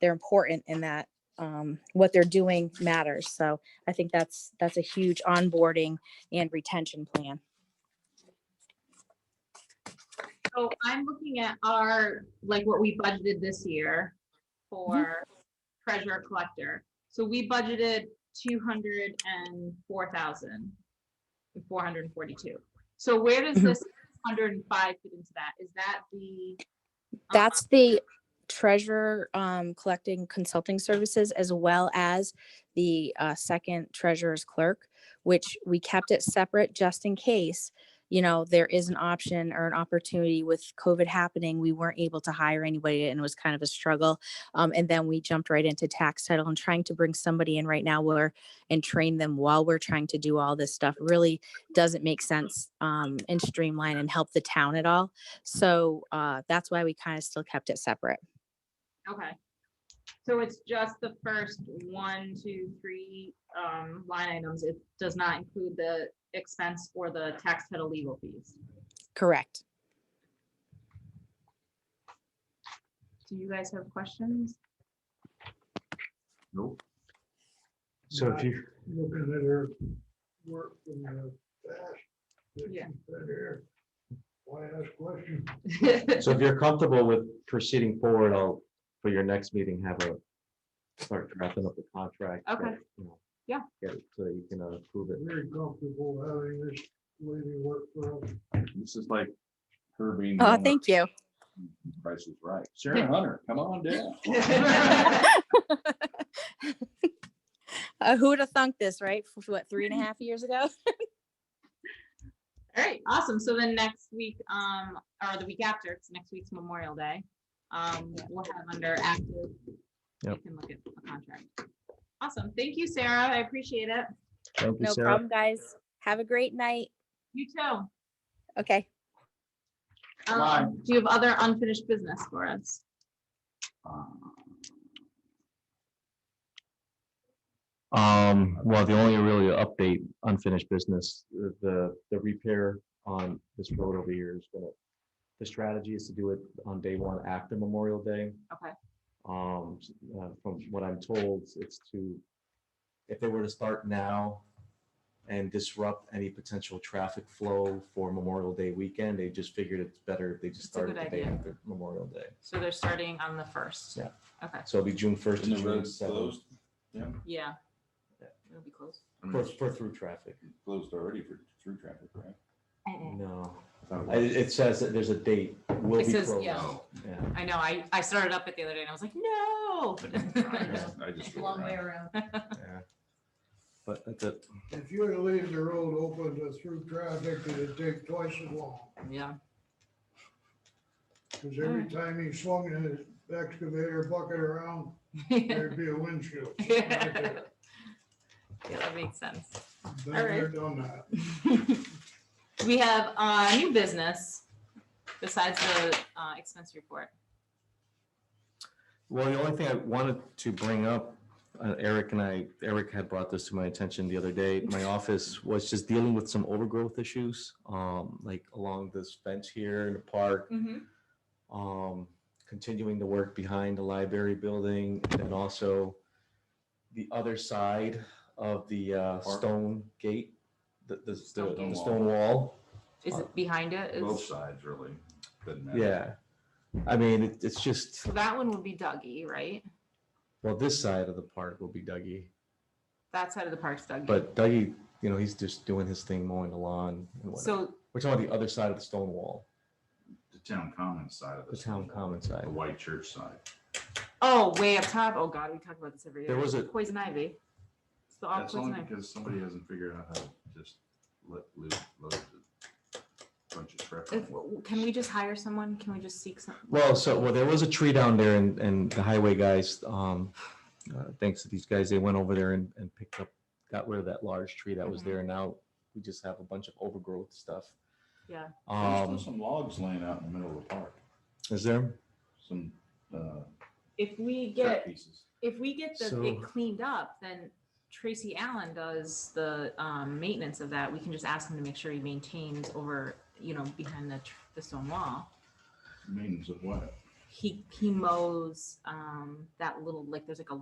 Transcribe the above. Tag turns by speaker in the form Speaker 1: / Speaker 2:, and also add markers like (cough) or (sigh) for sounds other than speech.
Speaker 1: they're important in that um, what they're doing matters. So I think that's, that's a huge onboarding and retention plan.
Speaker 2: So I'm looking at our, like what we budgeted this year for treasurer collector. So we budgeted two hundred and four thousand, four hundred and forty-two. So where does
Speaker 1: Mhm.
Speaker 2: this hundred and five fit into that? Is that the? um,
Speaker 1: That's the treasurer um, collecting consulting services as well as the uh, second treasurer's clerk, which we kept it separate just in case, you know, there is an option or an opportunity with COVID happening. We weren't able to hire anybody and it was kind of a struggle. Um, and then we jumped right into tax title and trying to bring somebody in right now where and train them while we're trying to do all this stuff really doesn't make sense um, and streamline and help the town at all. So uh, that's why we kind of still kept it separate.
Speaker 2: Okay. So it's just the first one, two, three um, line items. It does not include the expense or the tax title legal fees.
Speaker 1: Correct.
Speaker 2: Do you guys have questions? (laughs)
Speaker 3: Nope. So if
Speaker 4: Right.
Speaker 3: you,
Speaker 4: looking at her work in the past. that she's
Speaker 2: Yeah.
Speaker 4: been here, Why ask questions?
Speaker 3: so if you're comfortable with proceeding forward, I'll, for your next meeting, have a start drafting up the contract.
Speaker 2: Okay.
Speaker 3: that, you know,
Speaker 2: Yeah.
Speaker 3: Get it so you can uh, approve it.
Speaker 4: Very comfortable having this lady work for us.
Speaker 5: This is like her being. the
Speaker 1: Oh,
Speaker 5: owner.
Speaker 1: thank you.
Speaker 5: Price is right. Sharon Hunter, come on down.
Speaker 1: Uh, who would have thunk this, right? F- What, three and a half years ago?
Speaker 2: All right, awesome. So then next week, um, or the week after, it's next week's Memorial Day. Um, we'll have under active. we
Speaker 3: Yep.
Speaker 2: can look at the contract. Awesome. Thank you, Sarah. I appreciate it.
Speaker 3: Thank you,
Speaker 1: No
Speaker 3: Sarah.
Speaker 1: problem, guys. Have a great night.
Speaker 2: You too.
Speaker 1: Okay.
Speaker 5: Bye.
Speaker 2: Um, do you have other unfinished business for us?
Speaker 3: Um, well, the only really update, unfinished business, the- the, the repair on this road over here is gonna, the strategy is to do it on day one after Memorial Day.
Speaker 2: Okay.
Speaker 3: Um, s- uh, from what I'm told, it's to, if they were to start now and disrupt any potential traffic flow for Memorial Day weekend, they just figured it's better if they just
Speaker 2: That's a
Speaker 3: started
Speaker 2: good
Speaker 3: the day
Speaker 2: idea.
Speaker 3: after Memorial Day.
Speaker 2: So they're starting on the first.
Speaker 3: Yeah.
Speaker 2: Okay,
Speaker 3: So it'll be June first
Speaker 5: Isn't
Speaker 3: to
Speaker 5: the road
Speaker 3: June seventh,
Speaker 5: closed? Yeah.
Speaker 2: yeah.
Speaker 3: Yeah.
Speaker 2: It'll be closed.
Speaker 5: I mean,
Speaker 3: for,
Speaker 5: it's
Speaker 3: for through traffic.
Speaker 5: Closed already for through traffic, right?
Speaker 2: Eh,
Speaker 3: No.
Speaker 5: I thought it
Speaker 3: I- It,
Speaker 5: was-
Speaker 3: it says that there's a date, will be
Speaker 2: It says,
Speaker 3: closed.
Speaker 2: yeah.
Speaker 5: Oh,
Speaker 3: Yeah.
Speaker 2: I know, I, I started up it the other day and I was like,
Speaker 5: I
Speaker 2: no.
Speaker 5: just- I just rolled
Speaker 6: Long way
Speaker 5: around.
Speaker 6: around.
Speaker 3: But that's it.
Speaker 4: If you were to leave the road open to through traffic, it'd take twice as long.
Speaker 2: (laughs) Yeah, (laughs)
Speaker 4: Cause every time he swung his excavator bucket around,
Speaker 2: yeah,
Speaker 4: there'd be
Speaker 2: (laughs)
Speaker 4: a windshield. right there.
Speaker 2: that makes sense.
Speaker 4: Been
Speaker 2: All right.
Speaker 4: there, done that.
Speaker 2: (laughs) We have uh new business besides the uh, expense report.
Speaker 3: Well, the only thing I wanted to bring up, uh, Eric and I, Eric had brought this to my attention the other day. My office was just dealing with some overgrowth issues, um, like along this fence here in the park. Um, continuing the work behind the library building and then also the other side of the, uh,
Speaker 5: Park?
Speaker 3: stone gate, the, the,
Speaker 2: Stone
Speaker 3: the- the
Speaker 5: gate.
Speaker 3: stone wall.
Speaker 2: Is it behind it? Is-
Speaker 5: Both sides really. Doesn't matter.
Speaker 3: Yeah. I mean, it- it's just,
Speaker 2: So that one would be Dougie, right?
Speaker 3: well, this side of the park will be Dougie.
Speaker 2: That side of the park's Dougie.
Speaker 3: But Dougie, you know, he's just doing his thing, mowing the lawn and whatnot.
Speaker 2: So,
Speaker 3: We're talking about the other side of the stone wall,
Speaker 5: The town common side of
Speaker 3: the
Speaker 5: this,
Speaker 3: town common side.
Speaker 5: the white church side.
Speaker 2: oh, way up top. Oh, God, we talk about this every year.
Speaker 3: There was a-
Speaker 2: Poison ivy. It's the all
Speaker 5: That's
Speaker 2: poison
Speaker 5: only
Speaker 2: ivy.
Speaker 5: because somebody hasn't figured out how to just let loose, load the bunch of crap.
Speaker 2: If- Can we just hire someone? Can we just seek some?
Speaker 3: Well, so, well, there was a tree down there and, and the highway guys, um, uh, thanks to these guys, they went over there and, and picked up, got rid of that large tree that was
Speaker 2: Mhm.
Speaker 3: there. And now we just have a bunch of overgrowth stuff.
Speaker 2: Yeah.
Speaker 5: There's still
Speaker 3: Um,
Speaker 5: some logs laying out in the middle of the park,
Speaker 3: is there?
Speaker 5: some, uh,
Speaker 2: If we
Speaker 5: cut
Speaker 2: get,
Speaker 5: pieces.
Speaker 2: if we get the,
Speaker 3: So-
Speaker 2: it cleaned up, then Tracy Allen does the, um, maintenance of that. We can just ask him to make sure he maintains over, you know, behind the, tr- the stone wall.
Speaker 5: Means of what?
Speaker 2: he, he mows, um, that little, like, there's like a